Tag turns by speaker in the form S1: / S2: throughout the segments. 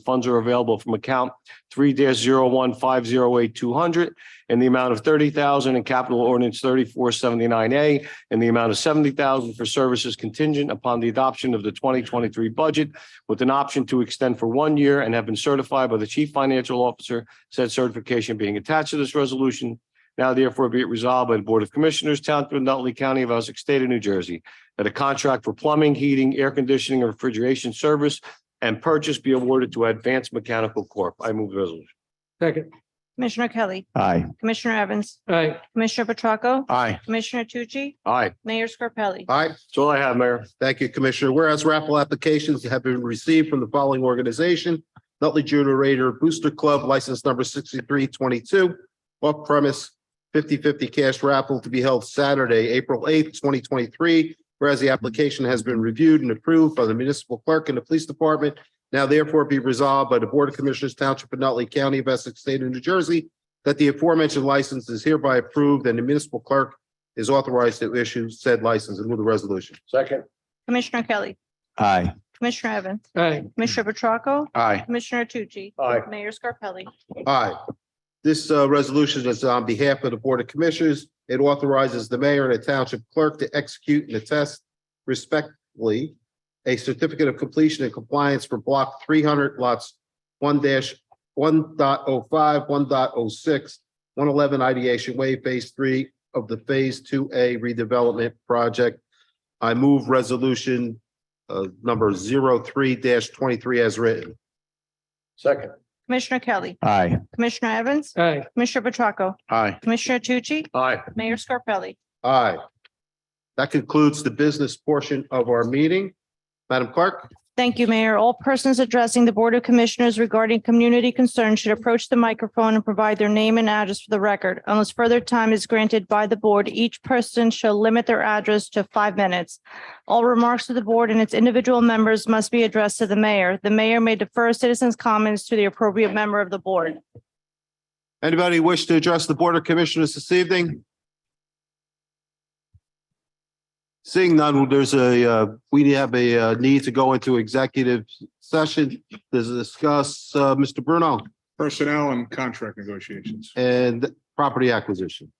S1: Funds are available from account three dash zero one five zero eight two hundred in the amount of thirty thousand and capital ordinance thirty-four seventy-nine A and the amount of seventy thousand for services contingent upon the adoption of the twenty twenty-three budget with an option to extend for one year and have been certified by the chief financial officer, said certification being attached to this resolution. Now therefore be it resolved by the Board of Commissioners, Township of Nutley County of Essex State of New Jersey, that a contract for plumbing, heating, air conditioning, and refrigeration service and purchase be awarded to Advanced Mechanical Corp. I move the resolution.
S2: Second.
S3: Commissioner Kelly,
S4: Aye.
S3: Commissioner Evans,
S2: Aye.
S3: Commissioner Petracca,
S4: Aye.
S3: Commissioner Tucci,
S1: Aye.
S3: Mayor Scarpelli.
S5: All right,
S1: That's all I have, Mayor.
S5: thank you, Commissioner. Whereas raffle applications have been received from the following organization. Nutley Junior Raider Booster Club, license number sixty-three twenty-two, off premise 50-50 cash raffle to be held Saturday, April eighth, twenty twenty-three. Whereas the application has been reviewed and approved by the municipal clerk and the police department. Now therefore be resolved by the Board of Commissioners Township of Nutley County of Essex State of New Jersey that the aforementioned license is hereby approved and the municipal clerk is authorized to issue said license. And move the resolution.
S1: Second.
S3: Commissioner Kelly,
S4: Aye.
S3: Commissioner Evans,
S2: Aye.
S3: Commissioner Petracca,
S4: Aye.
S3: Commissioner Tucci,
S1: Aye.
S3: Mayor Scarpelli.
S5: Aye. This uh, resolution is on behalf of the Board of Commissioners. It authorizes the mayor and the township clerk to execute and attest respectively a certificate of completion and compliance for block three hundred lots one dash one dot oh five, one dot oh six, one eleven ideation way, phase three of the phase two A redevelopment project. I move resolution uh, number zero three twenty-three as written.
S1: Second.
S3: Commissioner Kelly,
S4: Aye.
S3: Commissioner Evans,
S2: Aye.
S3: Commissioner Petracca,
S4: Aye.
S3: Commissioner Tucci,
S1: Aye.
S3: Mayor Scarpelli.
S5: Aye. That concludes the business portion of our meeting. Madam Clerk?
S3: Thank you, Mayor. All persons addressing the Board of Commissioners regarding community concerns should approach the microphone and provide their name and address for the record. Unless further time is granted by the board, each person shall limit their address to five minutes. All remarks to the board and its individual members must be addressed to the mayor. The mayor may defer citizens' comments to the appropriate member of the board.
S5: Anybody wish to address the Board of Commissioners this evening? Seeing none, there's a, uh, we have a uh, need to go into executive session to discuss uh, Mr. Bruno
S6: Personnel and contract negotiations.
S5: and property acquisition.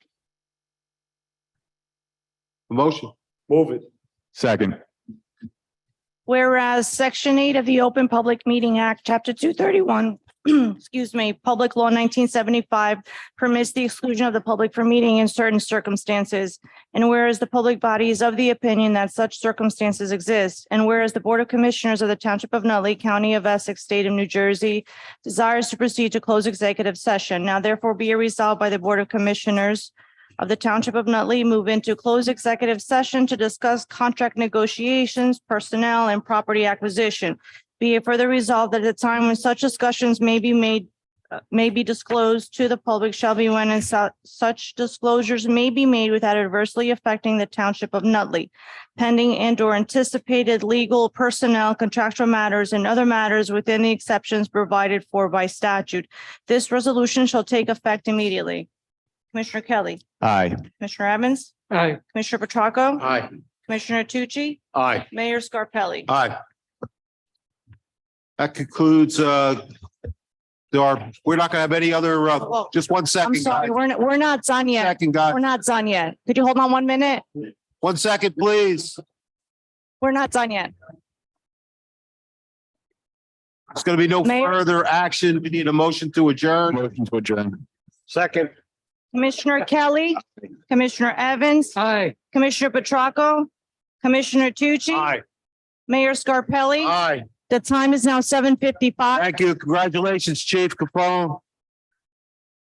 S5: Motion.
S1: Move it.
S4: Second.
S3: Whereas Section 8 of the Open Public Meeting Act, Chapter 231, excuse me, Public Law 1975 permits the exclusion of the public from meeting in certain circumstances. And whereas the public body is of the opinion that such circumstances exist, and whereas the Board of Commissioners of the Township of Nutley, County of Essex, State of New Jersey desires to proceed to close executive session, now therefore be it resolved by the Board of Commissioners of the Township of Nutley move into closed executive session to discuss contract negotiations, personnel, and property acquisition. Be it further resolved that at the time when such discussions may be made, uh, may be disclosed to the public shall be when and su- such disclosures may be made without adversely affecting the Township of Nutley, pending and or anticipated legal, personnel, contractual matters, and other matters within the exceptions provided for by statute. This resolution shall take effect immediately. Commissioner Kelly.
S4: Aye.
S3: Commissioner Evans,
S2: Aye.
S3: Commissioner Petracca,
S1: Aye.
S3: Commissioner Tucci,
S1: Aye.
S3: Mayor Scarpelli.
S1: Uh,
S5: Aye. That concludes, uh, there are, we're not gonna have any other, uh,
S3: Whoa.
S5: just one
S3: Oh, I'm
S5: second, guys.
S3: sorry, we're, not- we're not done yet.
S5: Second, guy.
S3: We're not done yet. Could you hold on one minute?
S5: One second, please.
S3: We're not done yet.
S5: There's gonna be no
S3: Mayor?
S5: further action. We need a motion to adjourn.
S4: Motion to adjourn.
S1: Second.
S3: Commissioner Kelly, Commissioner Evans,
S2: Aye.
S3: Commissioner Petracca, Commissioner Tucci,
S1: Aye.
S3: Mayor Scarpelli.
S1: Aye.
S3: The time is now seven fifty-five.
S5: Thank you. Congratulations, Chief Capone.